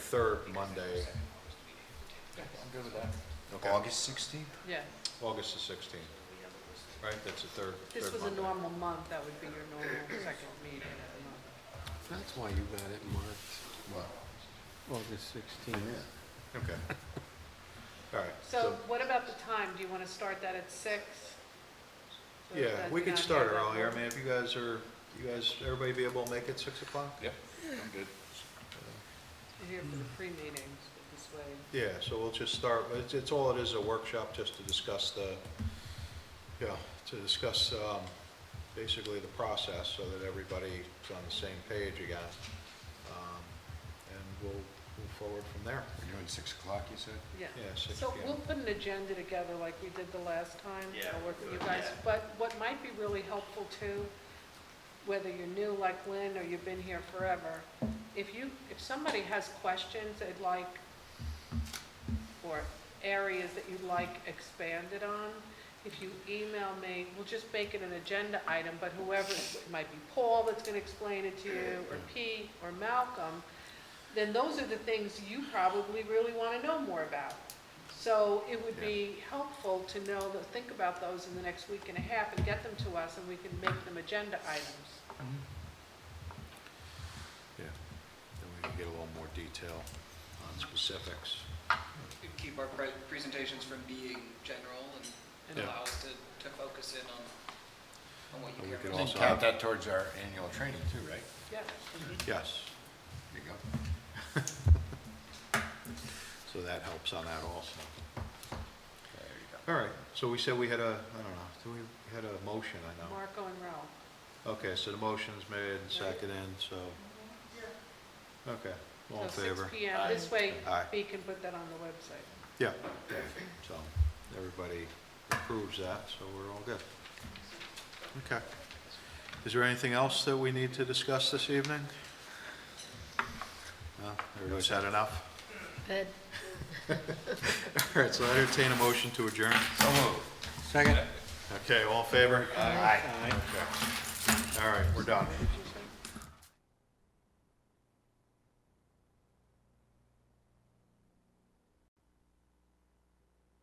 third Monday, I'm good with that. okay, August sixteenth? Yeah, August the sixteenth, right, that's the third, if third this was Monday. a normal month, that would be your normal second meeting of the month. That's why you got it marked What? August Oh, sixteenth. Okay. All right, So what about the time? Do you want to start that at six? So yeah, that we you could not start have that earlier, I long- mean, if you guys are, you guys, everybody be able to make it six o'clock? Yep, I'm good. You're Here for the pre-meetings, this way. Yeah, so we'll just start, it's, it's all it is, a workshop just to discuss the, yeah, to discuss, um, basically the process so that everybody's on the same page again. Um, And we'll move forward from there. We're doing six o'clock, you said? Yeah. Yeah, six So PM. we'll put an agenda together like we did the last time. Yeah, I'll work with you good, guys. yeah. But what might be really helpful too, whether you're new like Lynn or you've been here forever, if you, if somebody has questions they'd like, or areas that you'd like expanded on, if you email me, we'll just make it an agenda item, but whoever, it might be Paul that's gonna explain it to you, or Pete, or Malcolm, then those are the things you probably really want to know more about. So it would be helpful to know, to think about those in the next week and a half and get them to us and we can make them agenda items. Yeah, then we can get a little more detail on specifics. We keep our pre- presentations from being general and Yeah. and allow us to, to focus in on, on what And we you care could Then about. Also- count that towards our annual training too, right? Yeah. Yes, There you go. so that helps on that also. There you go. All right, so we said we had a, I don't know, do we we had a motion, I know. Marco and Ralph. Okay, so the motion's made and seconded, so. Okay, all in So favor? 6 PM. This way, Aye. Bee can put that on the website. Yeah, yeah, so everybody approves that, so we're all good. Okay. Is there anything else that we need to discuss this evening? No, everybody's had enough? Good. All right, so I entertain a motion to adjourn. So moved. Second? Okay, all in favor? Aye. All right, we're done.